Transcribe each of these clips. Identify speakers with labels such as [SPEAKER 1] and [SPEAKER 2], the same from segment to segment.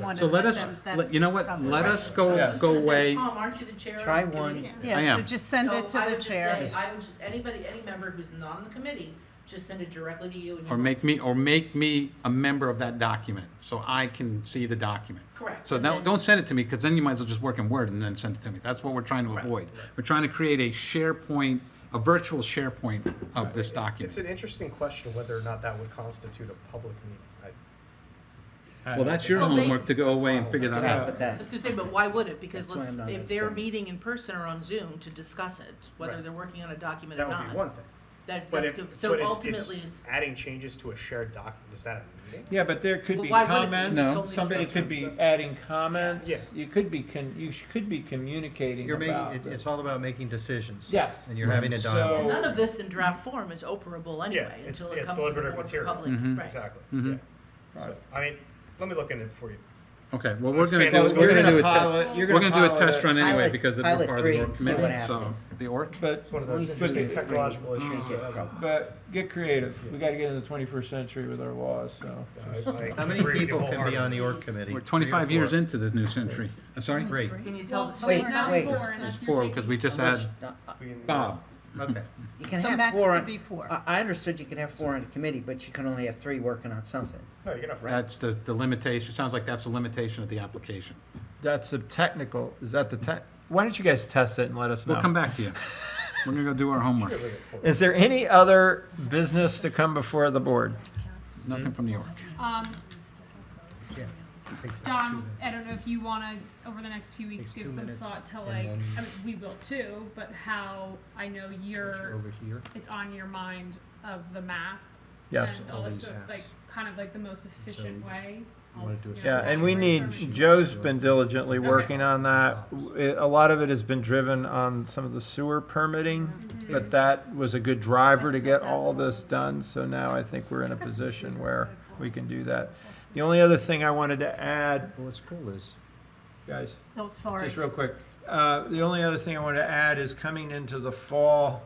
[SPEAKER 1] one
[SPEAKER 2] So
[SPEAKER 1] and
[SPEAKER 2] let
[SPEAKER 1] let
[SPEAKER 2] us,
[SPEAKER 1] them,
[SPEAKER 2] let- you know what,
[SPEAKER 1] that's
[SPEAKER 2] let
[SPEAKER 1] probably-
[SPEAKER 2] us go,
[SPEAKER 3] Yes.
[SPEAKER 2] go
[SPEAKER 4] Just say,
[SPEAKER 2] away.
[SPEAKER 4] Tom, aren't you the chair? of
[SPEAKER 3] Try
[SPEAKER 4] the
[SPEAKER 3] one.
[SPEAKER 4] committee?"
[SPEAKER 2] I
[SPEAKER 1] Yeah, so
[SPEAKER 2] am.
[SPEAKER 1] just send
[SPEAKER 4] So
[SPEAKER 1] it to
[SPEAKER 4] I
[SPEAKER 1] the
[SPEAKER 4] would just
[SPEAKER 1] chair.
[SPEAKER 4] say, I would just, anybody, any member who's not on the committee, just send it directly to you and you.
[SPEAKER 2] Or make me, or make me a member of that document, so I can see the document.
[SPEAKER 4] Correct.
[SPEAKER 2] So
[SPEAKER 4] And
[SPEAKER 2] now,
[SPEAKER 4] then-
[SPEAKER 2] don't send it to me, because then you might as well just work in Word and then send it to me. That's what we're trying to
[SPEAKER 4] Right.
[SPEAKER 2] avoid. We're trying to create a SharePoint, a virtual SharePoint of this
[SPEAKER 5] It's- It's
[SPEAKER 2] document.
[SPEAKER 5] an interesting question whether or not that would constitute a public meeting.
[SPEAKER 2] Well, that's your
[SPEAKER 4] Well, they-
[SPEAKER 2] homework to go away and
[SPEAKER 5] fine.
[SPEAKER 2] figure that out.
[SPEAKER 3] But that-
[SPEAKER 4] I was gonna say, but why would it? Because
[SPEAKER 3] That's why
[SPEAKER 4] let's,
[SPEAKER 3] I'm not
[SPEAKER 4] if they're
[SPEAKER 3] informed.
[SPEAKER 4] meeting in person or on Zoom to discuss it, whether
[SPEAKER 5] Right.
[SPEAKER 4] they're working on a
[SPEAKER 5] I-
[SPEAKER 4] document or
[SPEAKER 5] That would be
[SPEAKER 4] not,
[SPEAKER 5] one thing.
[SPEAKER 4] that,
[SPEAKER 5] But
[SPEAKER 4] that's,
[SPEAKER 5] if,
[SPEAKER 4] good.
[SPEAKER 5] but
[SPEAKER 4] so
[SPEAKER 5] is- is
[SPEAKER 4] ultimately, it's.
[SPEAKER 5] adding changes to a shared document, is that a meeting?
[SPEAKER 3] Yeah, but there could
[SPEAKER 4] Well,
[SPEAKER 3] be
[SPEAKER 4] why would it
[SPEAKER 2] No.
[SPEAKER 4] be
[SPEAKER 3] comments,
[SPEAKER 4] solely
[SPEAKER 3] somebody
[SPEAKER 4] for-
[SPEAKER 3] could be adding comments,
[SPEAKER 5] Yeah.
[SPEAKER 3] you could be, con- you sh- could be communicating
[SPEAKER 6] You're making,
[SPEAKER 3] about.
[SPEAKER 6] it-
[SPEAKER 3] the-
[SPEAKER 6] it's all about making decisions.
[SPEAKER 3] Yes.
[SPEAKER 6] And you're having a
[SPEAKER 3] Right.
[SPEAKER 6] dialogue.
[SPEAKER 3] So-
[SPEAKER 4] None of this in draft form is operable anyway
[SPEAKER 5] it's-
[SPEAKER 4] until it comes to
[SPEAKER 5] it's
[SPEAKER 4] the
[SPEAKER 5] deliberative
[SPEAKER 4] board for
[SPEAKER 5] material.
[SPEAKER 4] public,
[SPEAKER 3] Mm-hmm.
[SPEAKER 2] Mhm.
[SPEAKER 4] right?
[SPEAKER 5] Exactly.
[SPEAKER 2] Mhm.
[SPEAKER 6] Mm-hmm.
[SPEAKER 5] Yeah.
[SPEAKER 3] Right.
[SPEAKER 5] So, I mean, let me look into it for you.
[SPEAKER 2] Okay, well, we're gonna
[SPEAKER 5] Expand
[SPEAKER 2] do,
[SPEAKER 5] this.
[SPEAKER 2] we're
[SPEAKER 5] You're
[SPEAKER 2] gonna do a test.
[SPEAKER 3] pilot- you're
[SPEAKER 2] We're gonna do a
[SPEAKER 3] pilot
[SPEAKER 2] test run anyway,
[SPEAKER 7] Pilot-
[SPEAKER 2] because it'll be
[SPEAKER 7] pilot
[SPEAKER 2] part of
[SPEAKER 7] three
[SPEAKER 2] the
[SPEAKER 7] and
[SPEAKER 2] ORC
[SPEAKER 7] see what
[SPEAKER 2] committee, so.
[SPEAKER 7] happens.
[SPEAKER 2] The ORC?
[SPEAKER 3] But,
[SPEAKER 5] It's one of those
[SPEAKER 3] but-
[SPEAKER 5] interesting technological issues.
[SPEAKER 6] Yeah,
[SPEAKER 5] that hasn't-
[SPEAKER 3] but get creative, we gotta get in the twenty-first century with our laws, so.
[SPEAKER 5] I- I
[SPEAKER 6] How many
[SPEAKER 5] agree with you
[SPEAKER 6] people can be on the org committee?
[SPEAKER 2] We're twenty-five
[SPEAKER 6] Three or
[SPEAKER 2] years into the new century. I'm sorry?
[SPEAKER 6] four? Three,
[SPEAKER 4] Can you tell the
[SPEAKER 7] Wait,
[SPEAKER 4] story?
[SPEAKER 7] wait. now four, and
[SPEAKER 2] It's four, because we just had
[SPEAKER 7] No, uh,
[SPEAKER 5] wholeheartedly.
[SPEAKER 2] Bob.
[SPEAKER 6] okay.
[SPEAKER 7] You can
[SPEAKER 1] So
[SPEAKER 7] have
[SPEAKER 1] max
[SPEAKER 7] four,
[SPEAKER 1] could
[SPEAKER 7] on-
[SPEAKER 1] be four.
[SPEAKER 7] I I understood you can have four on a committee, but you can only have three working on something.
[SPEAKER 5] uh, No, you're gonna.
[SPEAKER 2] That's the, the limitation, it sounds like that's the limitation of the application.
[SPEAKER 3] That's a technical, is that the tech, why don't you guys test it and let us know?
[SPEAKER 2] We'll come back to you. We're gonna go do our homework.
[SPEAKER 3] Is there any other business to come before the board?
[SPEAKER 2] Nothing from New York.
[SPEAKER 8] Um,
[SPEAKER 6] Yeah.
[SPEAKER 8] Don, I don't know if you wanna, over the next few weeks,
[SPEAKER 6] Takes
[SPEAKER 8] give
[SPEAKER 6] two
[SPEAKER 8] some
[SPEAKER 6] minutes,
[SPEAKER 8] thought to
[SPEAKER 6] and
[SPEAKER 8] like, I
[SPEAKER 6] then-
[SPEAKER 8] mean, we will too, but how, I know you're,
[SPEAKER 6] Over here.
[SPEAKER 8] it's on your mind of the map.
[SPEAKER 3] Yes.
[SPEAKER 8] And
[SPEAKER 6] all
[SPEAKER 8] all that
[SPEAKER 6] these
[SPEAKER 8] sort of, like,
[SPEAKER 6] apps.
[SPEAKER 8] kind of like the most efficient way.
[SPEAKER 6] you wanna do a
[SPEAKER 8] You know,
[SPEAKER 3] Yeah, and we
[SPEAKER 8] like
[SPEAKER 3] need,
[SPEAKER 8] service.
[SPEAKER 3] Joe's been diligently
[SPEAKER 8] Okay.
[SPEAKER 3] working on that. W- it- A lot of it has been driven on some of the sewer permitting, but that was a good driver to get all this done, so now I think we're in a position where we can do that. The only other thing I wanted to add,
[SPEAKER 6] Well, what's cool is,
[SPEAKER 3] guys,
[SPEAKER 1] Oh, sorry.
[SPEAKER 3] just real quick, uh, the only other thing I want to add is coming into the fall,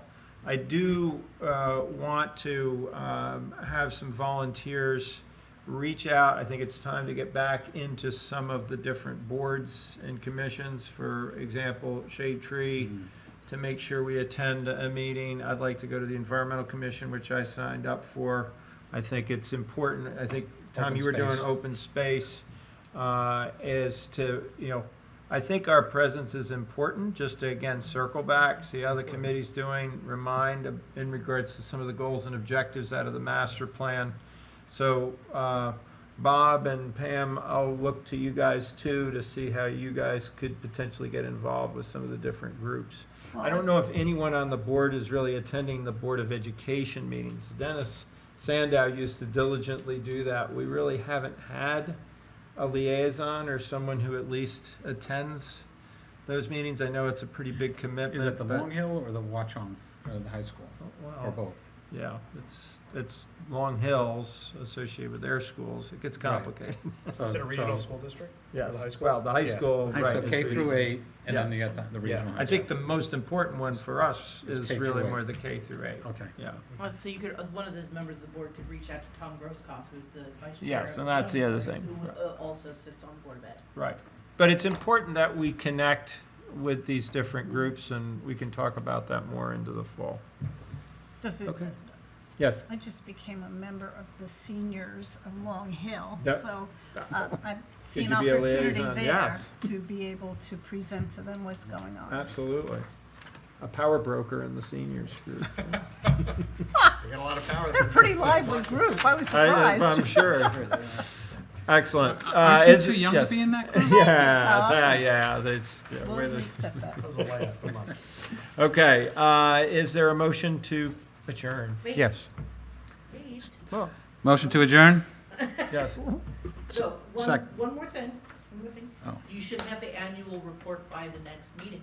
[SPEAKER 3] I do uh, want to um, have some volunteers reach out. I think it's time to get back into some of the different boards and commissions, for example, Shade Tree,
[SPEAKER 2] Mm-hmm.
[SPEAKER 3] to make sure we attend a meeting. I'd like to go to the Environmental Commission, which I signed up for. I think it's important, I think, Tom,
[SPEAKER 2] Open
[SPEAKER 3] you were doing
[SPEAKER 2] space.
[SPEAKER 3] open space, uh, is to, you know, I think our presence is important, just to again, circle back, see how the committee's doing, remind of- in regards to some of the goals and objectives out of the master plan. So, uh, Bob and Pam, I'll look to you guys too, to see how you guys could potentially get involved with some of the different groups. I don't know if anyone on the board is really attending the Board of Education meetings. Dennis Sandow used to diligently do that. We really haven't had a liaison or someone who at least attends those meetings. I know it's a pretty big commitment.
[SPEAKER 2] Is it the
[SPEAKER 3] but- Oh,
[SPEAKER 2] Long Hill or the Watchung, or the high school, or
[SPEAKER 3] Well,
[SPEAKER 2] both?
[SPEAKER 3] yeah, it's, it's Long Hills associated with their schools. It gets
[SPEAKER 2] Right.
[SPEAKER 3] complicated.
[SPEAKER 2] So-
[SPEAKER 6] uh,
[SPEAKER 5] Is it a regional
[SPEAKER 2] so-
[SPEAKER 5] school district?
[SPEAKER 3] Yes,
[SPEAKER 5] The high school?
[SPEAKER 3] well, the high
[SPEAKER 5] Yeah.
[SPEAKER 3] school,
[SPEAKER 2] high
[SPEAKER 3] right.
[SPEAKER 2] school,
[SPEAKER 3] is
[SPEAKER 2] K through
[SPEAKER 3] regional.
[SPEAKER 2] eight, and then
[SPEAKER 3] Yeah.
[SPEAKER 2] you got the, the regional.
[SPEAKER 3] Yeah,
[SPEAKER 2] high
[SPEAKER 3] I think the
[SPEAKER 2] school.
[SPEAKER 3] most important one for us
[SPEAKER 2] Is
[SPEAKER 3] is
[SPEAKER 2] K through
[SPEAKER 3] really
[SPEAKER 2] eight.
[SPEAKER 3] more the K through eight.
[SPEAKER 2] Okay.
[SPEAKER 3] Yeah.
[SPEAKER 4] Uh, So you could, uh, one of those members of the board could reach out to Tom Grosskopf, who's the vice chair.
[SPEAKER 3] Yes,
[SPEAKER 4] of
[SPEAKER 3] and that's the other
[SPEAKER 4] zoning board,
[SPEAKER 3] thing.
[SPEAKER 4] Who uh, also sits on board of ed.
[SPEAKER 3] Right. But it's important that we connect with these different groups, and we can talk about that more into the fall.
[SPEAKER 1] Does it,
[SPEAKER 3] Yes.
[SPEAKER 1] I just became a member of the seniors of Long Hill,
[SPEAKER 3] Yep.
[SPEAKER 1] so uh, I see
[SPEAKER 3] Could
[SPEAKER 1] an
[SPEAKER 3] you be a
[SPEAKER 1] opportunity
[SPEAKER 3] liaison?
[SPEAKER 1] there
[SPEAKER 3] Yes.
[SPEAKER 1] to be able to present to them what's going on.
[SPEAKER 3] Absolutely. A power broker in the seniors group.
[SPEAKER 5] We got a lot of power.
[SPEAKER 1] They're a pretty lively group, I was
[SPEAKER 3] I- I'm
[SPEAKER 1] surprised.
[SPEAKER 3] sure. Excellent. Uh,
[SPEAKER 2] Aren't you
[SPEAKER 3] is-
[SPEAKER 2] too young to
[SPEAKER 3] yes.
[SPEAKER 2] be in that group?
[SPEAKER 3] Yeah, that- yeah, that's, yeah,
[SPEAKER 1] We'll
[SPEAKER 3] we're the-
[SPEAKER 1] accept that.
[SPEAKER 5] That was a laugh. Come on.
[SPEAKER 3] okay, uh, is there a motion to adjourn?
[SPEAKER 6] yes.
[SPEAKER 4] Please.
[SPEAKER 2] Motion to adjourn?
[SPEAKER 3] Yes.
[SPEAKER 4] So, one,
[SPEAKER 2] sec-
[SPEAKER 4] one more thing, one more thing.
[SPEAKER 2] Oh.
[SPEAKER 4] You should have the annual report by the next meeting.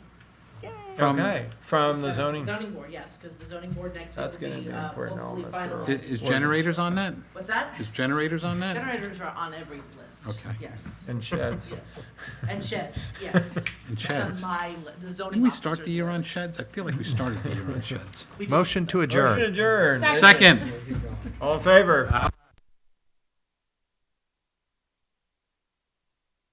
[SPEAKER 2] From-
[SPEAKER 3] Okay, from the zoning.
[SPEAKER 4] Zoning board, yes, because the zoning board next
[SPEAKER 3] That's
[SPEAKER 4] week
[SPEAKER 3] gonna
[SPEAKER 4] will
[SPEAKER 3] be
[SPEAKER 4] be,
[SPEAKER 3] an
[SPEAKER 4] uh,
[SPEAKER 3] important
[SPEAKER 4] hopefully
[SPEAKER 3] element
[SPEAKER 2] Is,
[SPEAKER 4] finalized.
[SPEAKER 2] is generators on that?
[SPEAKER 4] What's that?
[SPEAKER 2] Is generators on that?
[SPEAKER 4] Generators are on every list.
[SPEAKER 2] Okay.
[SPEAKER 4] Yes,
[SPEAKER 3] And sheds.
[SPEAKER 4] yes. And sheds, yes.
[SPEAKER 2] And
[SPEAKER 4] That's
[SPEAKER 2] sheds?
[SPEAKER 4] on my, li- the
[SPEAKER 2] Didn't
[SPEAKER 4] zoning
[SPEAKER 2] we
[SPEAKER 4] officer's
[SPEAKER 2] start the year on
[SPEAKER 4] list.
[SPEAKER 2] sheds? I feel like we started the year on sheds.
[SPEAKER 4] We did.
[SPEAKER 9] Motion to adjourn.
[SPEAKER 3] Motion adjourned.
[SPEAKER 2] Second.
[SPEAKER 3] All in favor?